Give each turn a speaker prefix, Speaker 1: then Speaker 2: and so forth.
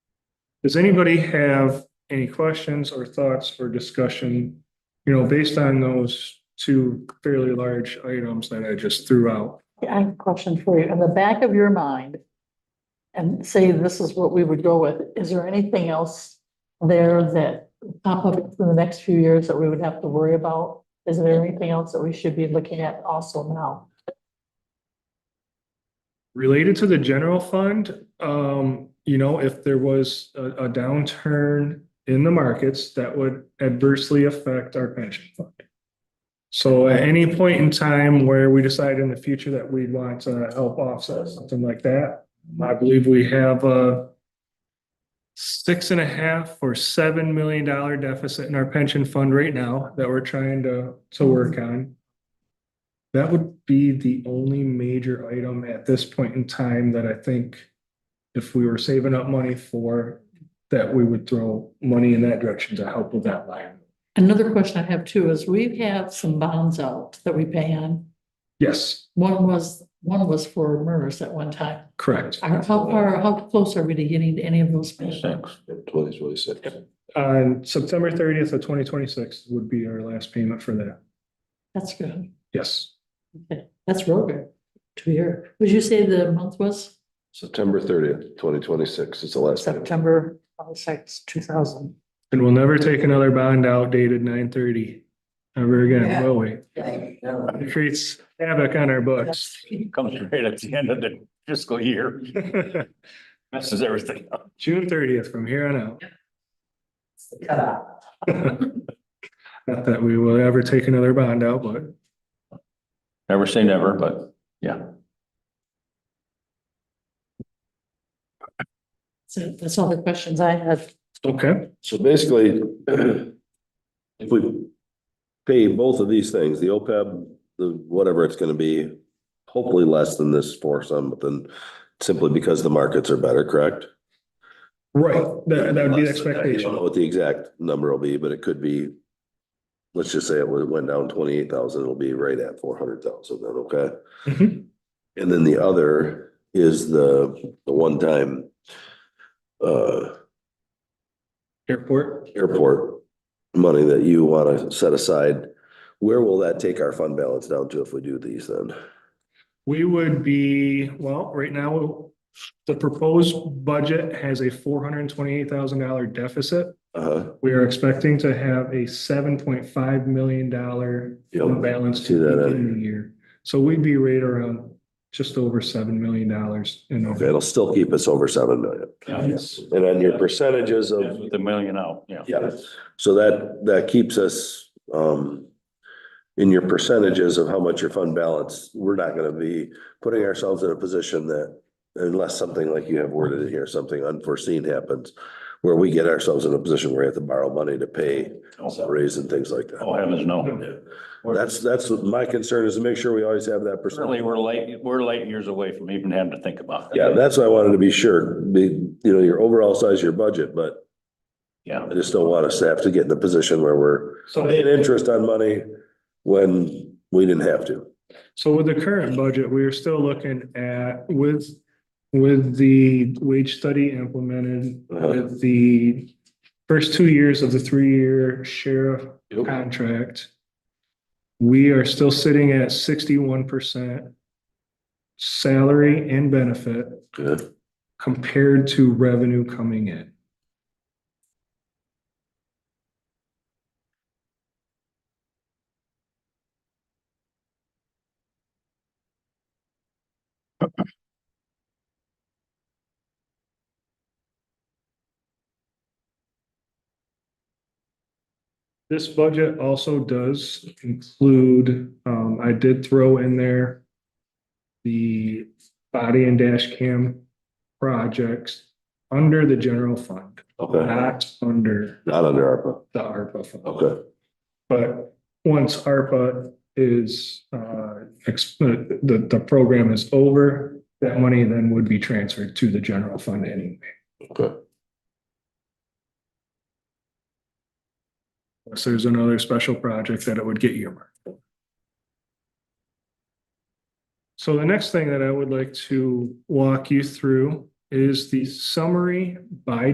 Speaker 1: Does anybody have any questions or thoughts for discussion? You know, based on those two fairly large items that I just threw out.
Speaker 2: I have a question for you. In the back of your mind, and say this is what we would go with, is there anything else there that pop up in the next few years that we would have to worry about? Is there anything else that we should be looking at also now?
Speaker 1: Related to the general fund, um, you know, if there was a, a downturn in the markets, that would adversely affect our pension fund. So at any point in time where we decide in the future that we'd want to help offset something like that, I believe we have a six and a half or seven million dollar deficit in our pension fund right now that we're trying to, to work on. That would be the only major item at this point in time that I think if we were saving up money for, that we would throw money in that direction to help with that line.
Speaker 2: Another question I have too is we have some bonds out that we pay on.
Speaker 1: Yes,
Speaker 2: One was, one was for MERS at one time.
Speaker 1: correct.
Speaker 2: Are- How far, how close are we to getting to any of those? paid?
Speaker 3: Six, today's really six.
Speaker 1: On September thirtieth of twenty twenty-six would be our last payment for that.
Speaker 2: That's good.
Speaker 1: Yes,
Speaker 2: Okay, That's real good to hear. Would you say the month was?
Speaker 3: September thirtieth, twenty twenty-six is the last. day.
Speaker 2: September twenty-six, two thousand.
Speaker 1: and we'll never take another bond out dated nine thirty ever again,
Speaker 2: Yeah.
Speaker 1: will we?
Speaker 3: It
Speaker 1: It creates havoc on our books.
Speaker 3: Comes right at the end of the fiscal year, messes everything up.
Speaker 1: June thirtieth from here on out. Not that we will ever take another bond out, but.
Speaker 3: Never say never, but
Speaker 2: So that's all the questions I had.
Speaker 1: Okay,
Speaker 4: So basically, if we pay both of these things, the OPEB, the whatever it's gonna be, hopefully less than this for some, but then simply because the markets are better, correct?
Speaker 1: right, that, that would be the
Speaker 4: I don't know
Speaker 1: expectation.
Speaker 4: what the exact number will be, but it could be, let's just say it went down twenty-eight thousand, it'll be right at four hundred thousand then, okay?
Speaker 1: Mhm.
Speaker 4: And then the other is the, the one-time uh,
Speaker 1: Airport,
Speaker 4: airport money that you want to set aside, where will that take our fund balance down to if we do these then?
Speaker 1: we would be, well, right now, the proposed budget has a four hundred and twenty-eight thousand dollar deficit.
Speaker 4: Uh-huh,
Speaker 1: We are expecting to have a seven point five million dollar
Speaker 4: Yep,
Speaker 1: balance
Speaker 4: see
Speaker 1: to
Speaker 4: that,
Speaker 1: the
Speaker 4: uh,
Speaker 1: end of the year. So we'd be right around just over seven million dollars in.
Speaker 4: okay, it'll still keep us over seven million.
Speaker 1: Yes.
Speaker 4: And then your percentages of,
Speaker 3: with the million out, yeah.
Speaker 4: yeah, so that, that keeps us, um, in your percentages of how much your fund balance, we're not gonna be putting ourselves in a position that unless something like you have worded it here, something unforeseen happens, where we get ourselves in a position where we have to borrow money to pay raise and things like that.
Speaker 3: Oh, heavens, no.
Speaker 4: That's, that's what my concern is to make sure we always have that percent.
Speaker 3: Certainly, we're late, we're late years away from even having to think about. that.
Speaker 4: Yeah, that's what I wanted to be sure, be, you know, your overall size of your budget, but
Speaker 3: Yeah.
Speaker 4: I just don't want us to have to get in a position where we're
Speaker 1: So
Speaker 4: paying interest on money when we didn't have to.
Speaker 1: So with the current budget, we are still looking at with, with the wage study implemented,
Speaker 4: Uh-huh.
Speaker 1: with the first two years of the three-year sheriff contract, we are still sitting at sixty-one percent salary and benefit
Speaker 4: Good.
Speaker 1: compared to revenue coming in. This budget also does include, um, I did throw in there the body and dash cam projects under the general fund,
Speaker 4: Okay,
Speaker 1: not under
Speaker 4: not under ARPA.
Speaker 1: the ARPA fund.
Speaker 4: Okay,
Speaker 1: But once ARPA is, uh, ex- the, the the program is over, that money then would be transferred to the general fund anyway.
Speaker 4: okay.
Speaker 1: Unless there's another special project that it would get earmarked. So the next thing that I would like to walk you through is the summary by